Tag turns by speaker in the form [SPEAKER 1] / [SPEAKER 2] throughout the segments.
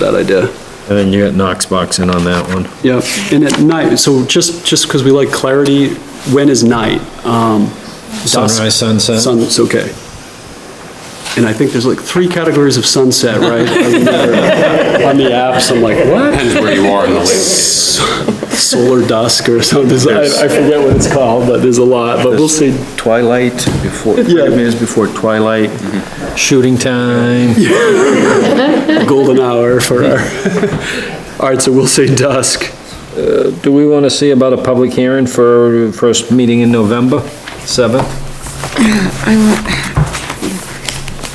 [SPEAKER 1] Bad idea.
[SPEAKER 2] And then you got Knox box in on that one.
[SPEAKER 1] Yeah, and at night, so just, just because we like clarity, when is night? Um, dusk,
[SPEAKER 2] Sunrise, uh, sunset.
[SPEAKER 1] Sun, it's okay. And I think there's like three categories of sunset, right? I remember On the apps, I'm like, what?
[SPEAKER 3] Depends where you are in the lake.
[SPEAKER 1] Solar dusk or something, I, I forget what it's called, but there's a lot, but we'll see.
[SPEAKER 2] Twilight before,
[SPEAKER 1] Yeah.
[SPEAKER 2] thirty minutes before twilight, Mm-hmm. shooting time.
[SPEAKER 1] golden hour for our, all right, so we'll say dusk.
[SPEAKER 2] Do we want to see about a public hearing for first meeting in November, seventh?
[SPEAKER 4] I want,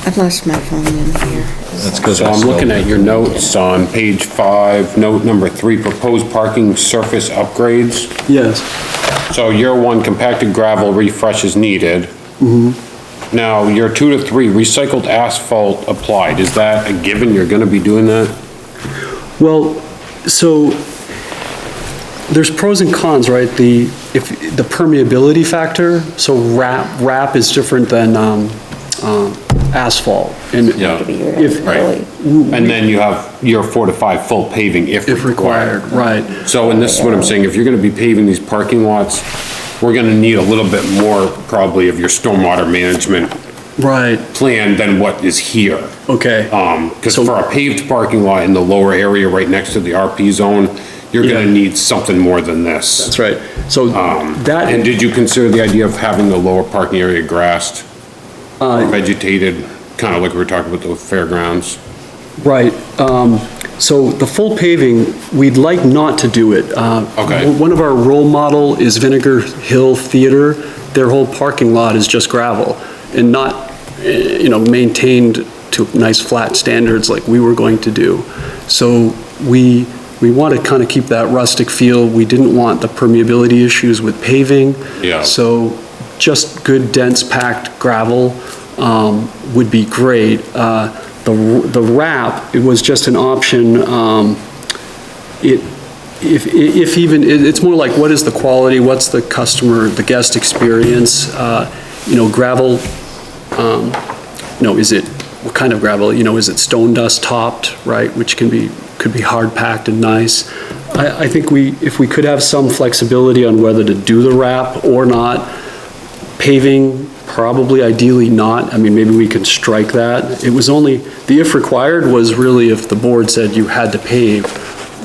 [SPEAKER 4] I've lost my phone in here.
[SPEAKER 2] That's because
[SPEAKER 3] So I'm looking at your notes on page five, note number three, proposed parking surface upgrades.
[SPEAKER 1] Yes,
[SPEAKER 3] So year one, compacted gravel refresh is needed.
[SPEAKER 1] Mm-hmm.
[SPEAKER 3] Now, year two to three, recycled asphalt applied. Is that a given? You're gonna be doing that?
[SPEAKER 1] well, so there's pros and cons, right? The, if, the permeability factor, so wrap, wrap is different than, um, um, asphalt. And
[SPEAKER 3] Yeah.
[SPEAKER 1] if, Mm-hmm.
[SPEAKER 3] Right. And then you have year four to five, full paving if
[SPEAKER 1] if required, right.
[SPEAKER 3] So, and this is what I'm saying, if you're gonna be paving these parking lots, we're gonna need a little bit more probably of your stormwater management
[SPEAKER 1] Right,
[SPEAKER 3] plan than what is here.
[SPEAKER 1] okay.
[SPEAKER 3] Um, cause
[SPEAKER 1] So-
[SPEAKER 3] for a paved parking lot in the lower area right next to the RP zone, you're
[SPEAKER 1] Yeah.
[SPEAKER 3] gonna need something more than this.
[SPEAKER 1] That's right. So that.
[SPEAKER 3] um, And did you consider the idea of having the lower parking area grassed?
[SPEAKER 1] Uh,
[SPEAKER 3] or Vegetated, kinda like we were talking about the fairgrounds?
[SPEAKER 1] Right, um, so the full paving, we'd like not to do it. Uh,
[SPEAKER 3] Okay.
[SPEAKER 1] One of our role model is Vinegar Hill Theater. Their whole parking lot is just gravel and not, eh, you know, maintained to nice flat standards like we were going to do. So we, we want to kind of keep that rustic feel. We didn't want the permeability issues with paving.
[SPEAKER 3] Yeah.
[SPEAKER 1] So just good dense packed gravel um, would be great. Uh, The the wrap, it was just an option. um, It, if, if even, it- it's more like what is the quality, what's the customer, the guest experience? uh, You know, gravel, um, you know, is it, what kind of gravel? You know, is it stone dust topped, right? Which can be, could be hard packed and nice. I, I think we, if we could have some flexibility on whether to do the wrap or not, paving, probably ideally not. I mean, maybe we can strike that. It was only, the if required was really if the board said you had to pave,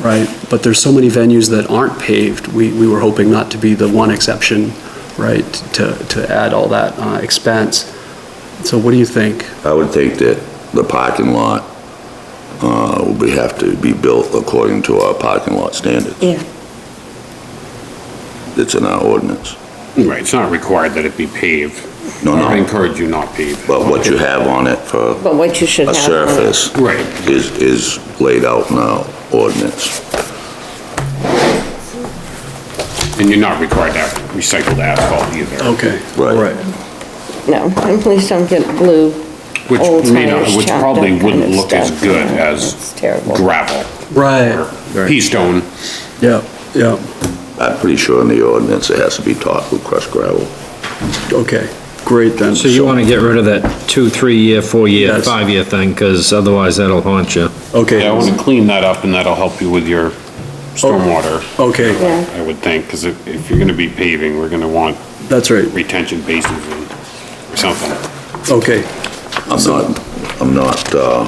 [SPEAKER 1] right? But there's so many venues that aren't paved. We, we were hoping not to be the one exception, right? To, to add all that uh, expense. So what do you think?
[SPEAKER 5] I would think that the parking lot, uh, would be- have to be built according to our parking lot standards
[SPEAKER 4] Yeah.
[SPEAKER 5] that's in our ordinance.
[SPEAKER 3] Right, it's not required that it be paved.
[SPEAKER 5] No,
[SPEAKER 3] I
[SPEAKER 5] no,
[SPEAKER 3] encourage you not paved.
[SPEAKER 5] but what you have on it for
[SPEAKER 4] But what you should
[SPEAKER 5] a
[SPEAKER 4] have. on it.
[SPEAKER 5] surface
[SPEAKER 3] Right.
[SPEAKER 5] is, is laid out in our ordinance.
[SPEAKER 3] And you're not required to have recycled asphalt either,
[SPEAKER 1] Okay.
[SPEAKER 5] Right.
[SPEAKER 4] No, and please don't get blue, old
[SPEAKER 3] which may not,
[SPEAKER 4] tires
[SPEAKER 3] which
[SPEAKER 4] chopped
[SPEAKER 3] probably
[SPEAKER 4] up kind
[SPEAKER 3] wouldn't
[SPEAKER 4] of
[SPEAKER 3] look as
[SPEAKER 4] stuff.
[SPEAKER 3] good
[SPEAKER 4] It's
[SPEAKER 3] as
[SPEAKER 4] terrible.
[SPEAKER 3] gravel or
[SPEAKER 1] Right,
[SPEAKER 3] pea stone.
[SPEAKER 1] yeah, yeah.
[SPEAKER 5] I'm pretty sure in the ordinance it has to be topped with crushed gravel.
[SPEAKER 1] Okay, great then.
[SPEAKER 2] So you want to get rid of that two, three-year, four-year,
[SPEAKER 1] Yes.
[SPEAKER 2] five-year thing, because otherwise that'll haunt you.
[SPEAKER 1] Okay,
[SPEAKER 3] Yeah, I wanna clean that up and that'll help you with your stormwater,
[SPEAKER 1] okay,
[SPEAKER 4] Yeah.
[SPEAKER 3] I would think, cause if, if you're gonna be paving, we're gonna want
[SPEAKER 1] that's right,
[SPEAKER 3] retention basins and or something.
[SPEAKER 1] okay.
[SPEAKER 5] I'm not, I'm not, uh,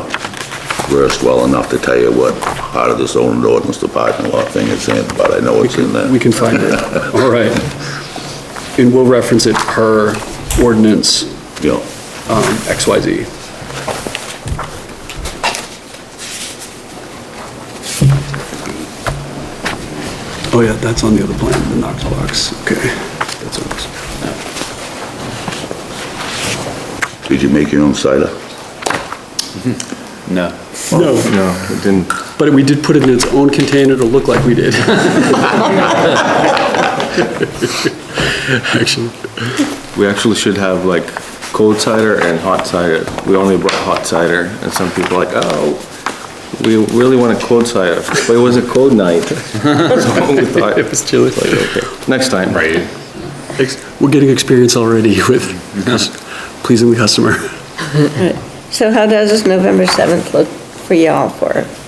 [SPEAKER 5] versed well enough to tell you what part of this old ordinance the parking lot thing is in, but I know it's in there.
[SPEAKER 1] We can find it, all right. And we'll reference it per ordinance
[SPEAKER 5] Yeah.
[SPEAKER 1] um, XYZ. Oh yeah, that's on the other plan, the Knox box, okay. That's ours.
[SPEAKER 5] Did you make your own cider?
[SPEAKER 1] No,
[SPEAKER 2] No, it didn't.
[SPEAKER 1] but we did put it in its own container to look like we did. Actually,
[SPEAKER 6] We actually should have like cold cider and hot cider. We only brought hot cider, and some people are like, oh, we really want a cold cider, but it was a cold night. So we thought,
[SPEAKER 1] it was chilly.
[SPEAKER 6] like, okay, Next time.
[SPEAKER 3] Right.
[SPEAKER 1] Ex- We're getting experience already with pleasing the customer.
[SPEAKER 4] So how does this November 7th look for y'all for